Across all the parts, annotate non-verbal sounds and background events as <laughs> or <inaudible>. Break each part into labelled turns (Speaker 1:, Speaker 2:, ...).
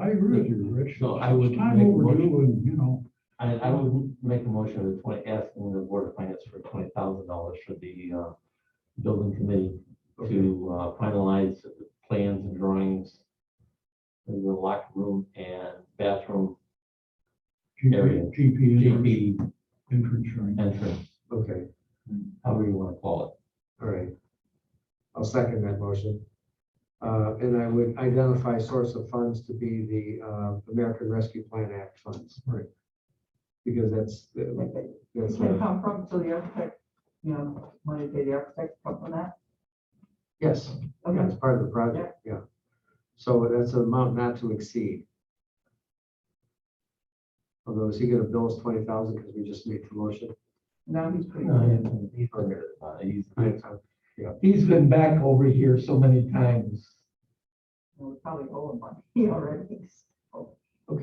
Speaker 1: I agree with you, Rich.
Speaker 2: So I would
Speaker 1: It's Time
Speaker 2: make a
Speaker 1: overdue and, you know,
Speaker 2: I, I would make a motion of the twenty, asking the board of finance for twenty thousand dollars for the, uh, building committee to uh, finalize the plans and drawings in the locker room and bathroom Area.
Speaker 1: GP, GP entrance-
Speaker 2: GP
Speaker 1: entrance, right?
Speaker 2: entrance,
Speaker 3: Okay,
Speaker 2: however you want to call
Speaker 3: all right. I'll second that motion. Uh, and I would identify source of funds to be the, uh, American Rescue Plan Act funds.
Speaker 1: Right.
Speaker 3: Because that's,
Speaker 4: Like,
Speaker 3: the-
Speaker 4: it
Speaker 3: that's,
Speaker 4: can
Speaker 3: the-
Speaker 4: come from, so the architect, you know, money to the architect, come from that.
Speaker 3: yes, yeah,
Speaker 4: Okay,
Speaker 3: it's part of the project, yeah. So that's an amount not to exceed. Although is he gonna bill us twenty thousand because we just made the motion?
Speaker 4: now he's pretty good.
Speaker 2: it. He's been there, uh, He's,
Speaker 3: Okay,
Speaker 2: he's been back over here so many times.
Speaker 4: Well, we probably owe him money <laughs> already. Oh,
Speaker 3: all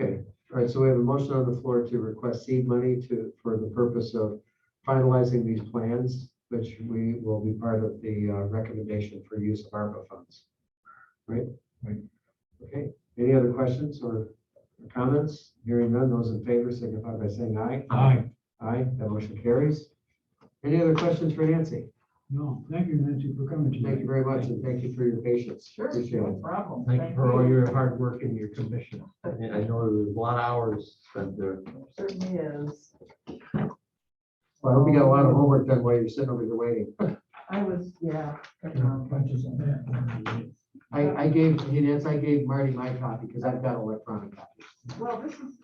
Speaker 3: right, so we have a motion on the floor to request seed money to, for the purpose of finalizing these plans, which we will be part of the uh, recommendation for use of ARPA funds. Right?
Speaker 1: Right.
Speaker 3: Okay, any other questions or comments? Hearing none, those in favor signify by saying aye.
Speaker 1: Aye,
Speaker 3: Aye, that motion carries. Any other questions for Nancy?
Speaker 1: no, thank you, Nancy, for coming
Speaker 3: Thank
Speaker 1: today.
Speaker 3: you very much, and thank you for your patience.
Speaker 4: Sure,
Speaker 3: Appreciate
Speaker 4: no
Speaker 3: it.
Speaker 4: problem.
Speaker 2: Thank you for all your hard work and your commission. I I know there was a lot of hours spent there.
Speaker 4: Certainly is.
Speaker 3: Well, I hope you got a lot of homework done while you're sitting over here waiting.
Speaker 4: I was, yeah. but, um,
Speaker 1: Punches on that.
Speaker 3: I, I gave, hey, Nancy, I gave Marty my copy because I've got electronic copies.
Speaker 4: Well, this is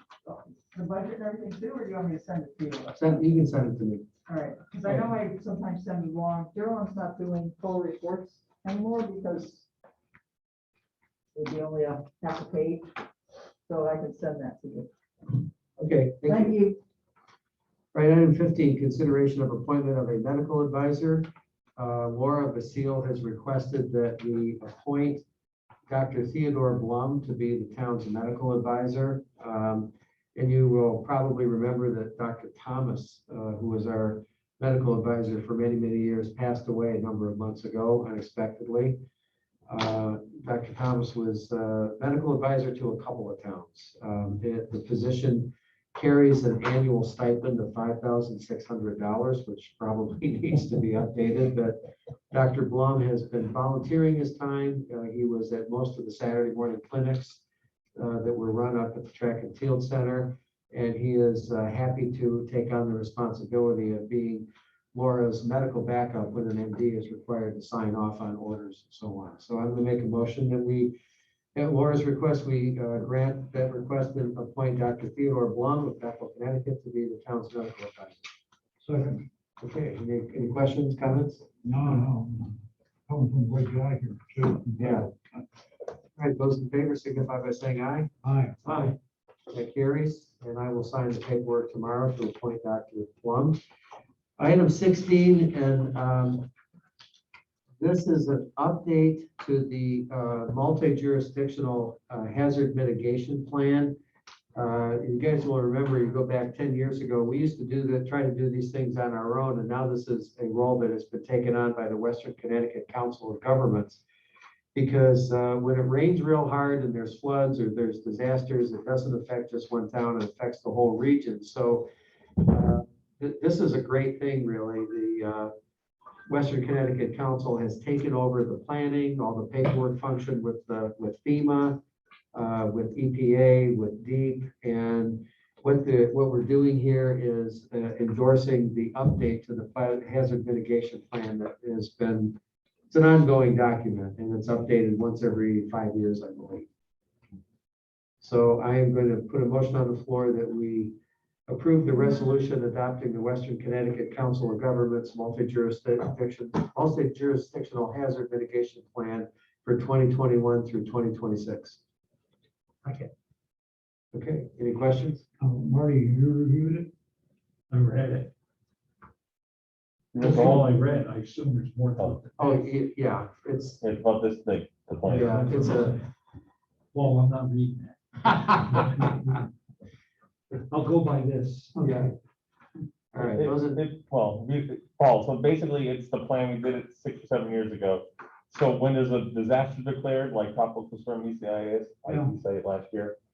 Speaker 4: the budget and everything too, or do you want me to send it to you?
Speaker 3: Send, you can send it to me.
Speaker 4: All right, because I know I sometimes send you long, Carolyn's not doing full reports anymore because it'd be only a half a page, so I can send that to you.
Speaker 3: Okay, thank you.
Speaker 4: Thank you.
Speaker 3: All Right, item fifteen, consideration of appointment of a medical advisor. Uh, Laura Basile has requested that we appoint Dr. Theodore Blum to be the town's medical advisor. Um, And you will probably remember that Dr. Thomas, uh, who was our medical advisor for many, many years, passed away a number of months ago unexpectedly. Uh, Dr. Thomas was uh, medical advisor to a couple of towns. Um, The the position carries an annual stipend of five thousand six hundred dollars, which probably <laughs> needs to be updated, but Dr. Blum has been volunteering his time. Uh, he was at most of the Saturday morning clinics uh, that were run up at the Track and Field Center, and he is uh, happy to take on the responsibility of being Laura's medical backup when an MD is required to sign off on orders and so on. So I'm gonna make a motion that we at Laura's request, we uh, grant that request and appoint Dr. Theodore Blum of Bethel, Connecticut to be the town's medical advisor.
Speaker 1: Second,
Speaker 3: Okay, any, any questions, comments?
Speaker 1: no, no, no. coming from Blake Guy here, too.
Speaker 3: Yeah. All right, those in favor signify by saying aye.
Speaker 1: Aye,
Speaker 3: Aye. That carries, and I will sign the paperwork tomorrow to appoint Dr. Plum. Item sixteen, and um, this is an update to the uh, multi-jurisdictional uh, hazard mitigation plan. Uh, You guys will remember, you go back ten years ago, we used to do the, try to do these things on our own, and now this is a role that has been taken on by the Western Connecticut Council of Governments because uh, when it rains real hard and there's floods or there's disasters, it doesn't affect just one town, it affects the whole region. So uh, th- this is a great thing, really. The uh, Western Connecticut Council has taken over the planning, all the paperwork function with the, with FEMA, uh, with EPA, with DEEP, and what the, what we're doing here is uh, endorsing the update to the fi- hazard mitigation plan that has been it's an ongoing document and it's updated once every five years, I believe. So I am going to put a motion on the floor that we approve the resolution adopting the Western Connecticut Council of Governments multi-jurisdiction, multi-jurisdictional hazard mitigation plan for 2021 through 2026. Okay. Okay, any questions?
Speaker 1: Uh, Marty, you reviewed it?
Speaker 5: I read it.
Speaker 1: Mm-hmm.
Speaker 5: That's all I read. I assume there's more to it.
Speaker 3: Oh, y- yeah, it's,
Speaker 6: It's about this big, the plan.
Speaker 3: yeah, it's a,
Speaker 5: Well, I'm not reading that. I'll go by this.
Speaker 3: yeah. All right,
Speaker 6: It-
Speaker 3: those are,
Speaker 6: it- Well, we- Paul, so basically it's the plan, we did it six or seven years ago. So when there's a disaster declared, like tropical storm ECIS, I
Speaker 1: Yeah.
Speaker 6: didn't say it last year,